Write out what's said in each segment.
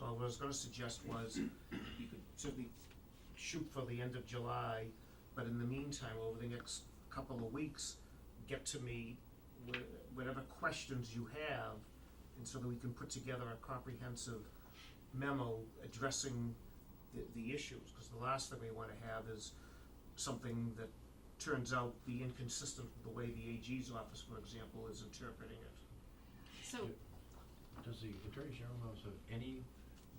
uh, what I was gonna suggest was, you could certainly shoot for the end of July, but in the meantime, over the next couple of weeks, get to me wh- whatever questions you have, and so that we can put together a comprehensive memo addressing the, the issues, because the last thing we wanna have is something that turns out be inconsistent with the way the AG's office, for example, is interpreting it. So, Does the Attorney General House have any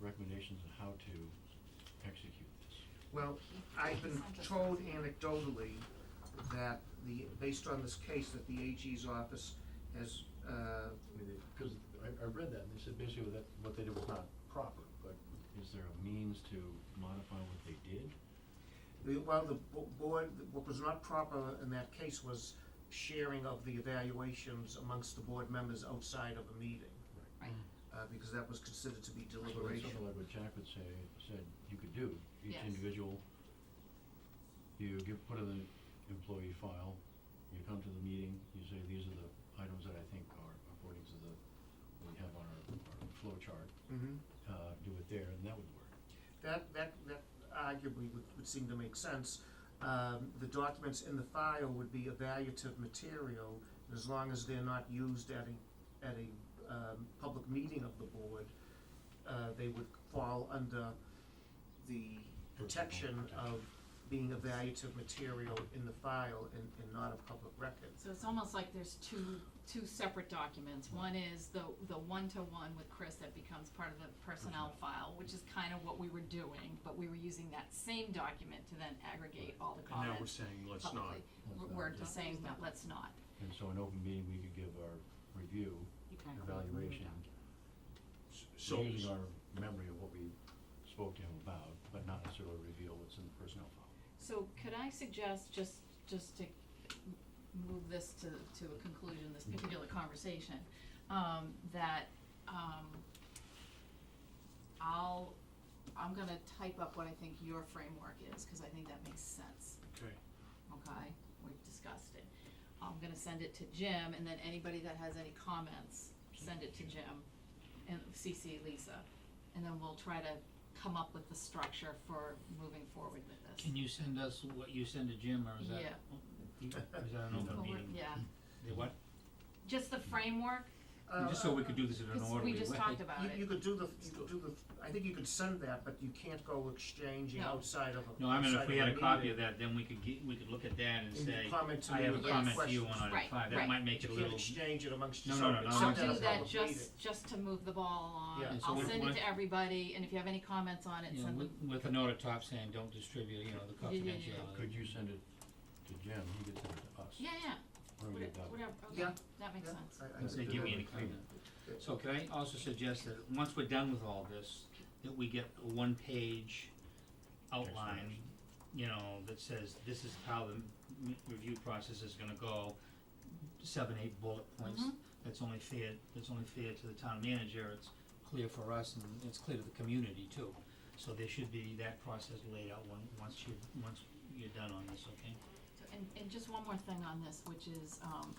recommendations on how to execute this? Well, I've been told anecdotally that the, based on this case, that the AG's office has, uh, I mean, because I, I read that, and they said basically that what they did was not proper, but is there a means to modify what they did? The- Well, the bo- board, what was not proper in that case was sharing of the evaluations amongst the board members outside of a meeting, right, uh, because that was considered to be So that's something deliberation. like what Jack would say, said you could do, each Yes. individual, you give, put in the employee file, you come to the meeting, you say, these are the items that I think are according to the, what we have on our, our flow chart, Mhm. uh, do it there, and that would work. That, that, that arguably would, would seem to make sense. Um, the documents in the file would be evaluative material, and as long as they're not used at a, at a, um, public meeting of the board, uh, they would fall under the protection of being evaluative material in the file and, and not a public record. so it's almost like there's two, two separate documents. One is the, the one-to-one with Chris that becomes part of the personnel file, which is kind of what we were doing, but we were using that same document to then aggregate all the And now we're comments saying, let's not. publicly. Let's We're- not, We're yeah. just saying, no, let's not. And so in open meeting, we could give our review, You kind of hold the evaluation, document. So, using our memory of what we spoke to him about, but not necessarily reveal what's in the personnel file. So could I suggest, just, just to m- move this to, to a conclusion, this particular conversation, um, that, um, I'll, I'm gonna type up what I think your framework is, cause I think that makes sense, okay, okay? We've discussed it. I'm gonna send it to Jim, and then anybody that has any comments, send it to Jim and CC Lisa. And then we'll try to come up with the structure for moving forward with this. Can you send us what you send to Jim, or is that? Yeah. Is that an Well, open we're- meeting? Yeah, The what? just the framework, Just so we could do this in an because orderly way. we just talked about You, Uh, you it. could do the, you could do the, I think you could send that, but you can't go exchanging No. outside of a, No, I mean, outside if we of had a copy meeting. of that, then we could get, we could look at that and And say, comment to I me have a with your comment to you on questions." item Right, five, right. that might make You it a can't little. exchange it amongst No, no, yourself, no, it's I'll no, not no, a do no. that public meeting. just, just to move the ball along. Yeah. So I'll what- send it what- to everybody, and if you have any comments on it, You know, send with, them. with a note at top saying, don't distribute, you know, the Yeah, yeah, yeah. confidentiality. Could you send it to Jim, he could send it to us? Yeah, yeah, Why don't we do whata- that? whatever, okay, Yeah. that makes Yeah, sense. I- I And could say, do give that. me any comment. So could I also suggest that, once we're done with all this, that we get a one-page outline, Explanation. you know, that says, this is how the m- review process is gonna go, seven, eight bullet points. Mhm. That's only fair, that's only fair to the town manager, it's clear for us, and it's clear to the community too. So there should be that process laid out one, once you, once you're done on this, okay? So, And, and just one more thing on this, which is, um,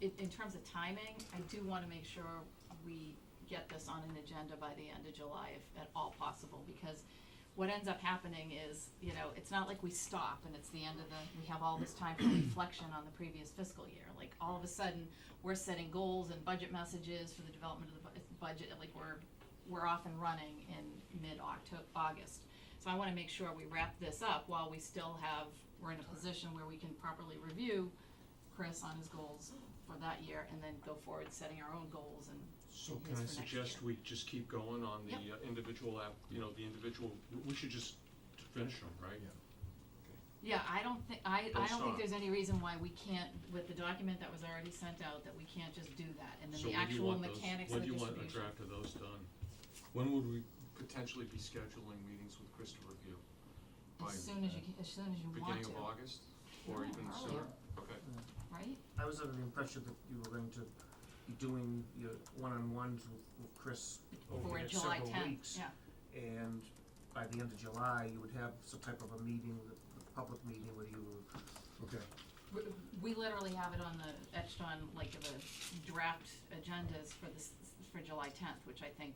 in, in terms of timing, I do wanna make sure we get this on an agenda by the end of July if at all possible, because what ends up happening is, you know, it's not like we stop and it's the end of the, we have all this time for reflection on the previous fiscal year. Like, all of a sudden, we're setting goals and budget messages for the development of the bu- budget, like, we're, we're off and running in mid-Octo- August. So I wanna make sure we wrap this up while we still have, we're in a position where we can properly review Chris on his goals for that year and then go forward setting our own goals and so Yes, can for I next suggest year. we just keep going on the uh, individual app, you know, the individual, we should just finish them, right? Yeah, I don't think, I, I Don't don't think stop. there's any reason why we can't, with the document that was already sent out, that we can't just do that, and then So the when do you actual want those, mechanics of when the do you want a distribution. draft of those done? When would we potentially be scheduling meetings with Chris to review? By uh, As soon as you, ca- as soon as you want beginning to, of August or No, even earlier. sooner? Okay, right? I was under the impression that you were going to be doing your one-on-ones with, with Chris over For the next July several tenth, weeks. yeah, And by the end of July, you would have some type of a meeting, a public meeting where you were, Okay. we, we literally have it on the, etched on like the draft agendas for this, for July tenth, which I think